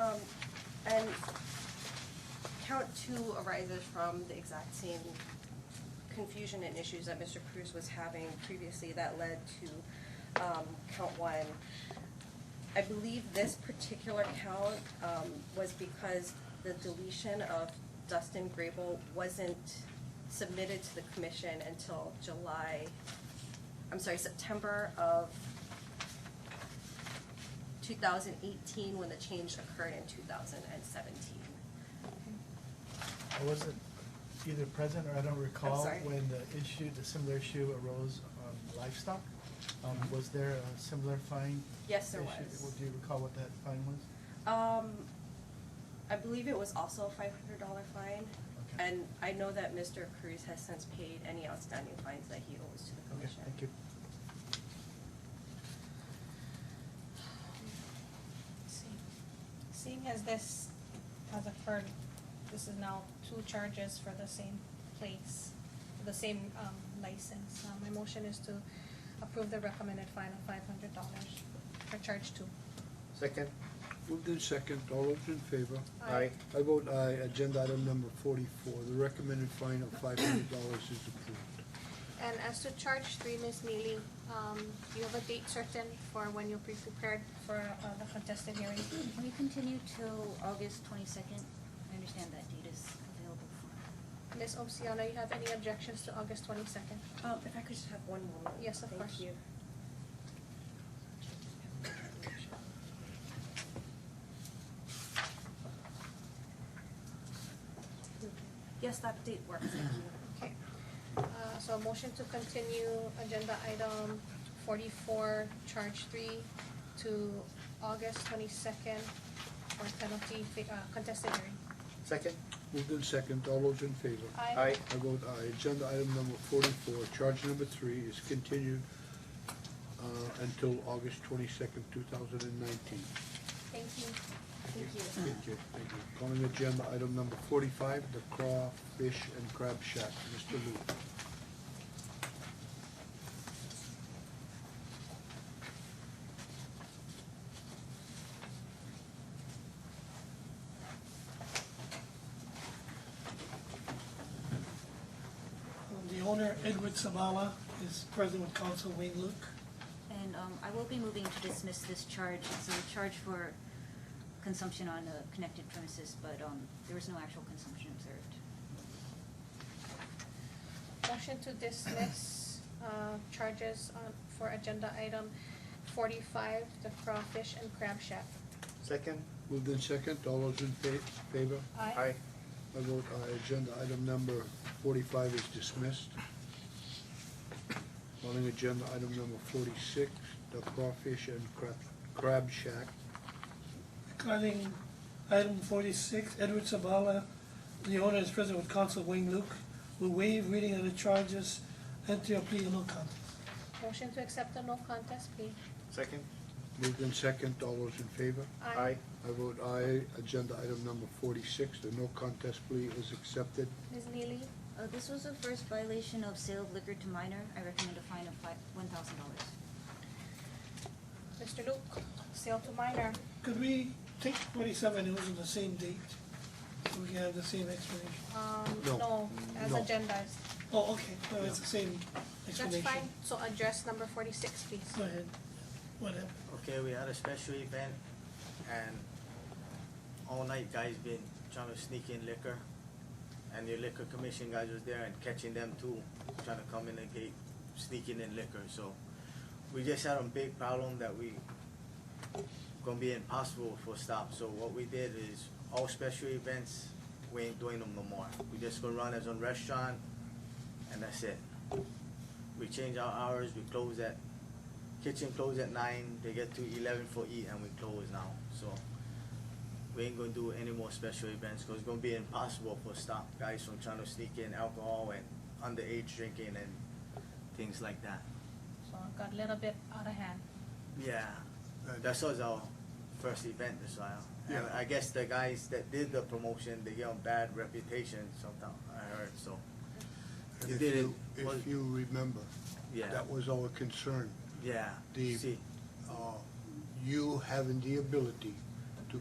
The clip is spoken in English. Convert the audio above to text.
Um, and count two arises from the exact same confusion and issues that Mr. Cruz was having previously that led to, um, count one. I believe this particular count, um, was because the deletion of Dustin Grable wasn't submitted to the commission until July, I'm sorry, September of 2018 when the change occurred in 2017. I wasn't either present or I don't recall sorry. when the issue, the similar issue arose on livestock. Um, was there a similar fine? Yes, there issue? was. Do you recall what that fine was? Um, I believe it was also a $500 fine. Okay. And I know that Mr. Cruz has since paid any outstanding fines that he owes to the Okay, commission. thank you. See- Seeing as this has occurred, this is now two charges for the same place, the same um, license. Uh, My motion is to approve the recommended fine of five hundred dollars for charge two. Second. Moved in second, all those in favor? Aye. Aye. I vote aye, agenda item number forty-four, the recommended fine of five hundred dollars is approved. And as to charge three, Ms. Neely, um, do you have a date certain for when you'll be prepared for uh, the contested hearing? Can we continue till August twenty-second? I understand that date is available for. Ms. Oceana, you have any objections to August twenty-second? Um, if I could just have one moment. Yes, of course. Thank you. Yes, that date works, thank you. Okay, uh, so a motion to continue agenda item forty-four, charge three, to August twenty-second for penalty fi- uh, contested hearing. Second. Moved in second, all those in favor? Aye. I vote aye, agenda item number forty-four, charge number three is continued uh, until August twenty-second, two thousand and nineteen. Thank you. Thank you. Thank you, thank you. Calling agenda item number forty-five, the Crawfish and Crab Shack, Mr. Lu. The owner, Edward Savala, is present with counsel Wayne Luke. And um, I will be moving to dismiss this charge. It's a charge for consumption on a connected premises, but um, there was no actual consumption observed. Motion to dismiss, uh, charges on, for agenda item forty-five, the crawfish and crab shack. Second. Moved in second, all those in fa- favor? Aye. I vote aye, agenda item number forty-five is dismissed. Calling agenda item number forty-six, the Crawfish and Crab, Crab Shack. Regarding item forty-six, Edward Sabala, the owner, is present with counsel Wayne Luke, will waive reading of the charges, enter a plea of no contest. Motion to accept the no contest plea. Second. Moved in second, all those in favor? Aye. I vote aye, agenda item number forty-six, the no contest plea is accepted. Ms. Neely, Uh, This was the first violation of sale of liquor to minor. I recommend a fine of fi- $1,000. Mr. Luke, sale to minor. Could we take forty-seven, it was on the same date, so we can have the same explanation? Um, No. no, as No. agendas. Oh, okay, no, it's the same That's explanation. fine, so address number forty-six, please. Go ahead, whatever. Okay, we had a special event and all night guys been trying to sneak in liquor. And the liquor commission guys was there and catching them too, trying to come in the gate, sneaking in liquor, so. We just had a big problem that we gonna be impossible for stop, so what we did is all special events, we ain't doing them no more. We just gonna run as a restaurant and that's it. We change our hours, we close at kitchen close at nine, they get to eleven for eat and we close now, so. We ain't gonna do any more special events, cause it's gonna be impossible for stop guys from trying to sneak in alcohol and underage drinking and things like that. So it got a little bit out of hand. Yeah, that was our first event this while. And Yeah. I guess the guys that did the promotion, they get a bad reputation sometime, I heard, so, And You if did it. Was- If you remember, yeah, that was our concern. yeah, The- see, Uh, You having the ability